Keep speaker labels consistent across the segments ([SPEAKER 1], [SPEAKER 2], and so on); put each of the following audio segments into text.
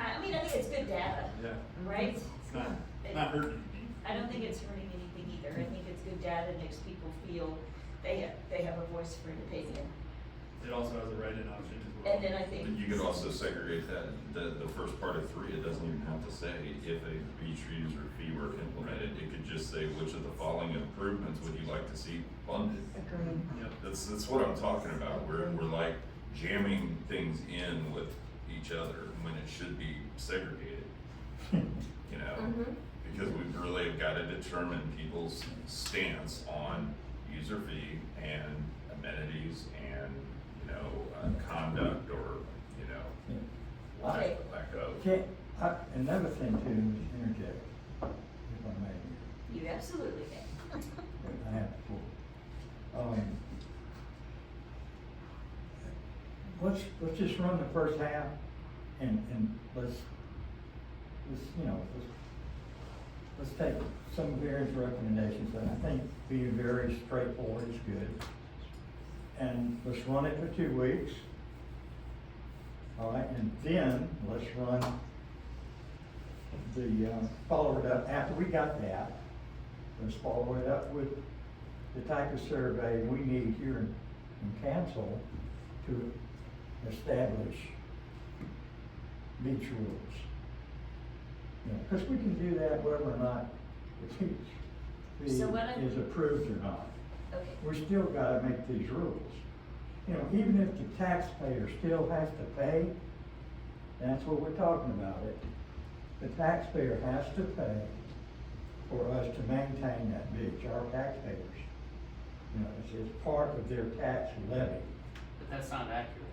[SPEAKER 1] I I mean, I think it's good data,
[SPEAKER 2] Yeah,
[SPEAKER 3] Mm-hmm.
[SPEAKER 1] right?
[SPEAKER 2] it's not, it's not hurting anything.
[SPEAKER 1] I don't think it's hurting anything either. I think it's good data, makes people feel they have, they have a voice for an opinion.
[SPEAKER 2] It also has a write-in option as well.
[SPEAKER 1] And then I think.
[SPEAKER 4] But you could also segregate that, the, the first part of three, it doesn't even have to say if a beach user fee were implemented, it could just say which of the following improvements would you like to see funded?
[SPEAKER 3] Agreed.
[SPEAKER 2] Yep.
[SPEAKER 4] That's, that's what I'm talking about, we're, we're like jamming things in with each other when it should be segregated. You
[SPEAKER 1] Mm-hmm.
[SPEAKER 4] know, because we really have gotta determine people's stance on user fee and amenities and, you know, uh, conduct or, you know, lack,
[SPEAKER 1] Okay.
[SPEAKER 4] lack of.
[SPEAKER 5] Okay, I- another thing too, just interject, if I may,
[SPEAKER 1] You absolutely can.
[SPEAKER 5] I have before. Um, let's, let's just run the first half and, and let's, let's, you know, let's, let's take some of Aaron's recommendations, and I think being very straightforward is good. And let's run it for two weeks. All right, and then let's run the, uh, follow it up, after we got that, let's follow it up with the type of survey we need here in in council to establish beach rules. You know, cause we can do that whether or not the beach fee
[SPEAKER 1] So what I-
[SPEAKER 5] is approved or not.
[SPEAKER 1] Okay.
[SPEAKER 5] We still gotta make these rules. You know, even if the taxpayer still has to pay, that's what we're talking about it. The taxpayer has to pay for us to maintain that beach, our taxpayers. You know, it's, it's part of their tax levy.
[SPEAKER 6] But that's not accurate.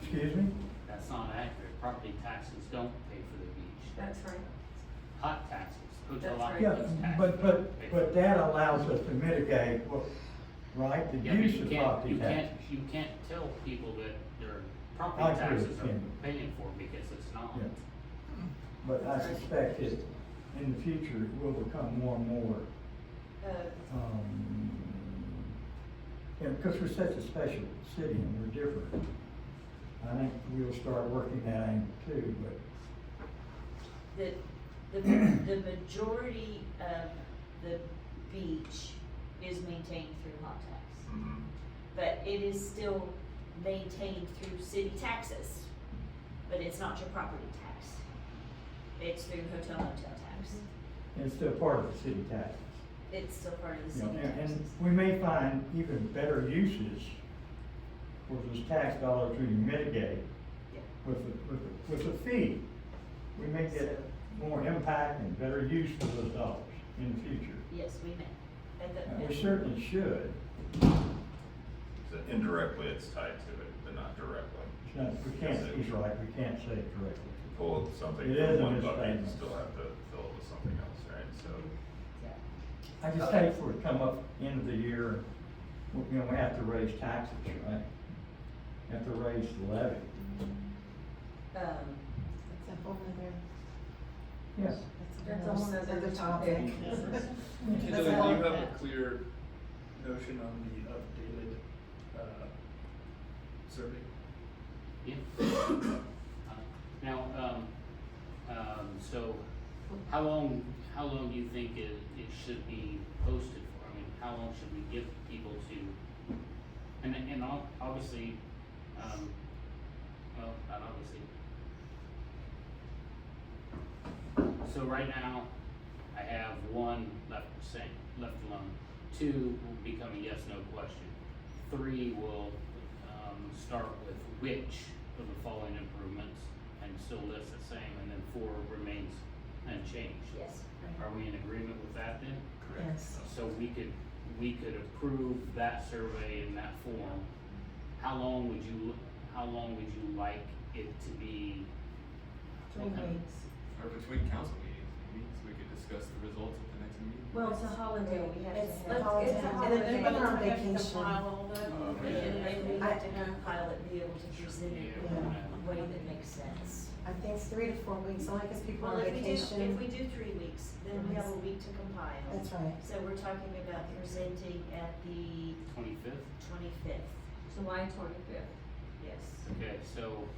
[SPEAKER 5] Excuse me?
[SPEAKER 6] That's not accurate. Property taxes don't pay for the beach.
[SPEAKER 1] That's right.
[SPEAKER 6] Hot taxes, hotel
[SPEAKER 1] That's right.
[SPEAKER 5] Yeah,
[SPEAKER 6] occupancy tax.
[SPEAKER 5] but, but, but that allows us to mitigate, what- right, the
[SPEAKER 6] Yeah, but
[SPEAKER 5] use
[SPEAKER 6] you
[SPEAKER 5] of
[SPEAKER 6] can't-
[SPEAKER 5] property
[SPEAKER 6] You can't,
[SPEAKER 5] taxes.
[SPEAKER 6] you can't tell people that their
[SPEAKER 5] I
[SPEAKER 6] property
[SPEAKER 5] agree,
[SPEAKER 6] taxes are
[SPEAKER 5] yeah.
[SPEAKER 6] paying for it because it's not.
[SPEAKER 5] Yeah. But I suspect that in the future, it will become more and more
[SPEAKER 1] Uh,
[SPEAKER 5] um, you know, because we're such a special city and we're different. I think we'll start working that angle too, but
[SPEAKER 1] the, the, the majority of the beach is maintained through hot tax.
[SPEAKER 4] Mhm.
[SPEAKER 1] But it is still maintained through city taxes, but it's not your property tax. It's through hotel motel tax.
[SPEAKER 5] it's still part of the city taxes.
[SPEAKER 1] It's still part of the
[SPEAKER 5] you know,
[SPEAKER 1] city
[SPEAKER 5] and-
[SPEAKER 1] taxes.
[SPEAKER 5] And we may find even better uses for those tax dollars we mitigate
[SPEAKER 1] Yeah.
[SPEAKER 5] with, a- with, a- with a fee. We may get more impact and better use for those dollars in the future.
[SPEAKER 1] Yes, we may. At the-
[SPEAKER 5] And
[SPEAKER 1] at-
[SPEAKER 5] we certainly should.
[SPEAKER 4] So indirectly, it's tied to it, but not directly.
[SPEAKER 5] No, we can't, he's right, we can't say it directly.
[SPEAKER 4] Pull something
[SPEAKER 5] It is
[SPEAKER 4] from
[SPEAKER 5] a
[SPEAKER 4] one bucket, you
[SPEAKER 5] misstatement.
[SPEAKER 4] still have to fill it with something else, right? So,
[SPEAKER 1] yeah.
[SPEAKER 5] I just hate for it to come up end of the year, you know, we have to raise taxes, right? Have to raise the levy.
[SPEAKER 1] Um,
[SPEAKER 3] That's a whole nother,
[SPEAKER 5] Yes.
[SPEAKER 3] that's a whole nother topic.
[SPEAKER 2] So
[SPEAKER 3] That's
[SPEAKER 2] do you
[SPEAKER 3] all
[SPEAKER 2] have a
[SPEAKER 3] that.
[SPEAKER 2] clear notion on the updated, uh, survey?
[SPEAKER 6] Yeah. Uh, Now, um, um, so how long, how long do you think it, it should be posted for? I mean, how long should we give people to? And, and ob- obviously, um, well, not obviously. So right now, I have one left saying, left alone. Two will become a yes, no question. Three will, um, start with which of the following improvements and still list the same, and then four remains unchanged.
[SPEAKER 1] yes.
[SPEAKER 6] Are we in agreement with that then?
[SPEAKER 4] correct.
[SPEAKER 3] Yes.
[SPEAKER 6] So we could, we could approve that survey in that form. How long would you, how long would you like it to be?
[SPEAKER 3] Three weeks.
[SPEAKER 7] Or between council meetings, maybe, so we could discuss the results at the next meeting.
[SPEAKER 1] Well, it's a holiday, we have to have.
[SPEAKER 8] It's, it's
[SPEAKER 3] a
[SPEAKER 8] a
[SPEAKER 3] holiday. And then
[SPEAKER 8] holiday,
[SPEAKER 3] people are on
[SPEAKER 8] we have to
[SPEAKER 3] vacation.
[SPEAKER 8] file all
[SPEAKER 4] Oh,
[SPEAKER 8] the.
[SPEAKER 4] okay.
[SPEAKER 1] And maybe we have to
[SPEAKER 3] I-
[SPEAKER 1] compile it, be able to present it in a way that makes sense.
[SPEAKER 3] I think it's three to four weeks, only because people are
[SPEAKER 1] Well,
[SPEAKER 3] on
[SPEAKER 1] if we do, if we
[SPEAKER 3] vacation.
[SPEAKER 1] do three weeks, then we have a week to compile.
[SPEAKER 3] That's right.
[SPEAKER 1] So we're talking about presenting at the
[SPEAKER 6] Twenty-fifth?
[SPEAKER 1] twenty-fifth,
[SPEAKER 8] July twenty-fifth.
[SPEAKER 1] yes.
[SPEAKER 6] Okay, so um,